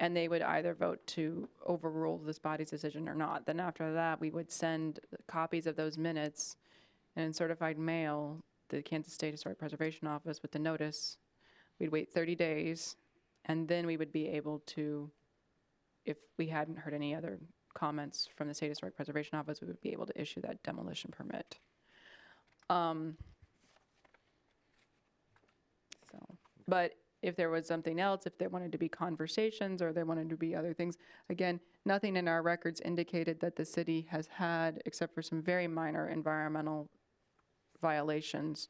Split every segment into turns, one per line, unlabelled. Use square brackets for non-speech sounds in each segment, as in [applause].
And they would either vote to overrule this body's decision or not. Then after that, we would send copies of those minutes and in certified mail, the Kansas State Historic Preservation Office with the notice. We'd wait 30 days, and then we would be able to, if we hadn't heard any other comments from the State Historic Preservation Office, we would be able to issue that demolition permit. Um, So, but if there was something else, if there wanted to be conversations or there wanted to be other things, again, nothing in our records indicated that the city has had, except for some very minor environmental violations,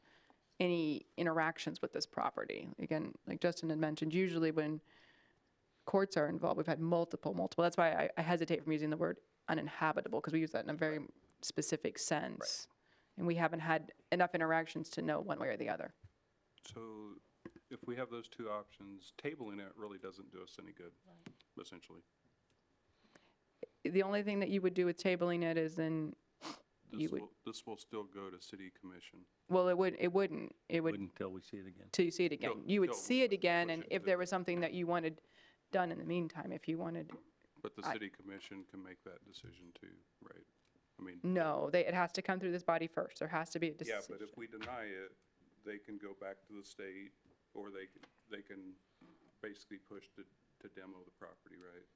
any interactions with this property. Again, like Justin had mentioned, usually when courts are involved, we've had multiple, multiple. That's why I- I hesitate from using the word uninhabitable, because we use that in a very specific sense. And we haven't had enough interactions to know one way or the other.
So if we have those two options, tabling it really doesn't do us any good, essentially.
The only thing that you would do with tabling it is then, You
This
would-
will, this will still go to city commission.
well, it would, it wouldn't, it would,
Wouldn't until we see it again.
till you see it again. You would
till
see it again, and
push it
if
to-
there was something that you wanted done in the meantime, if you wanted,
But the
I-
city commission can make that decision too, right? I mean,
no, they, it has to come through this body first. There has to be a
yeah,
decision.
but if we deny it, they can go back to the state or they, can they can basically push to, to demo the property, right?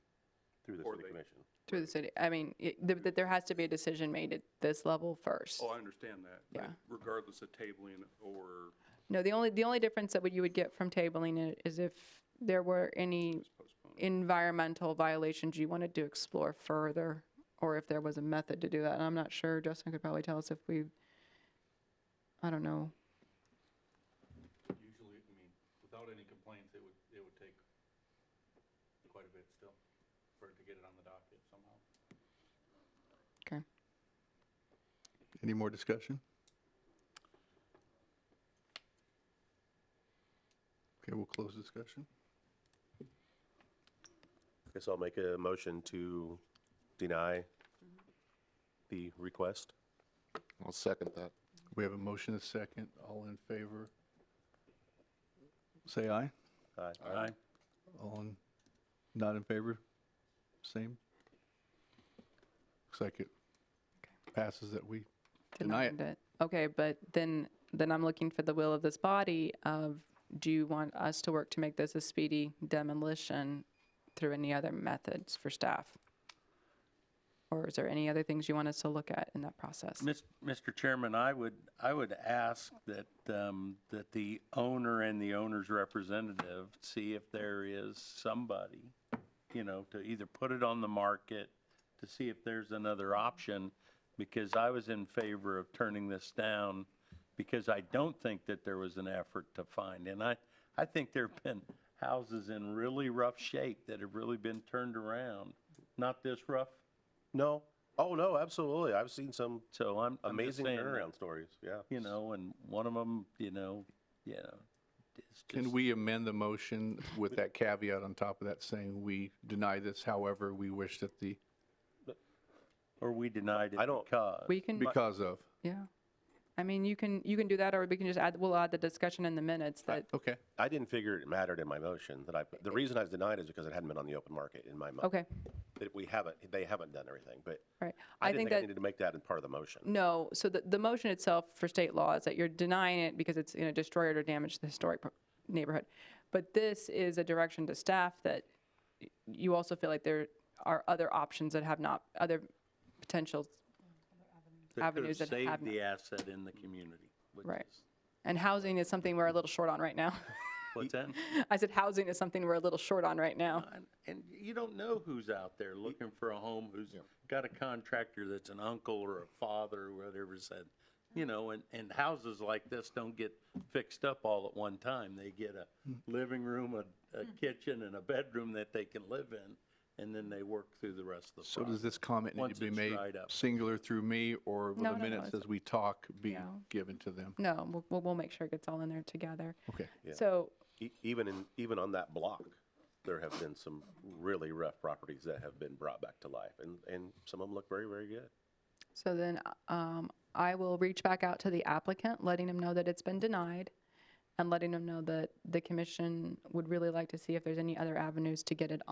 Through the
Or
city
they-
commission.
Through the city, I mean, it- th- that there has to be a decision made at this level first.
Oh, I understand that. but
Yeah.
Regardless of tabling or
No, the only, the only difference that would- you would get from tabling it is if there were any
just postponing.
environmental violations you wanted to explore further, or if there was a method to do that. And I'm not sure, Justin could probably tell us if we, I don't know.
Usually, I mean, without any complaints, it would, it would take quite a bit still for it to get it on the docket somehow.
Okay.
Any more discussion? Okay, we'll close discussion.
Guess I'll make a motion to deny the request.
I'll second that.
We have a motion, a second. All in favor? Say aye.
Aye.
Aye.
All in, not in favor? Same? Looks like it passes that we deny it.
denied Okay, but then, then I'm looking for the will of this body of, do you want us to work to make this a speedy demolition through any other methods for staff? Or is there any other things you want us to look at in that process?
Mis- Mr. Chairman, I would, I would ask that, um, that the owner and the owner's representative see if there is somebody, you know, to either put it on the market, to see if there's another option, because I was in favor of turning this down, because I don't think that there was an effort to find. And I, I think there have been houses in really rough shape that have really been turned around. Not this rough,
No, oh, no, absolutely. I've seen some
so I'm. I'm just
amazing
saying that-
turnaround stories, yeah.
you know, and one of them, you know, you know, it's
Can
just-
we amend the motion with that caveat on top of that saying we deny this however we wish that the,
or we denied it
I don't-
because
We can,
because of?
yeah. I mean, you can, you can do that, or we can just add, we'll add the discussion in the minutes that,
Okay.
I didn't figure it mattered in my motion that I, the reason I was denied is because it hadn't been on the open market in my mind.
okay,
That we haven't, they haven't done everything, but
right.
I
I
didn't
think
think
that,
I needed to make that in part of the motion.
no, so the, the motion itself for state law is that you're denying it because it's, you know, destroyed or damaged the historic pro- neighborhood. But this is a direction to staff that y- you also feel like there are other options that have not, other potential
that could have
avenues that have
saved
not.
the asset in the community. which
Right.
is-
And housing is something we're a little short on right now. [laughs]
What's that?
I said housing is something we're a little short on right now.
Uh.
And- And you don't know who's out there looking for a home, who's got a contractor that's an uncle or a father or whatever said, you know, and, and houses like this don't get fixed up all at one time. They get a
Hmm.
living room, a, a kitchen and a bedroom that they can live in, and then they work through the rest of the process.
So does this comment need
Once
to be
it's
made
dried up.
singular through me or will
No,
the
no, no,
minutes
it's-
as we talk be
No.
given to them?
No, we'll- we'll, we'll make sure it gets all in there together.
Okay.
So,
E- Even in, even on that block, there have been some really rough properties that have been brought back to life and, and some of them look very, very good.
so then um, I will reach back out to the applicant, letting him know that it's been denied and letting him know that the commission would really like to see if there's any other avenues to get it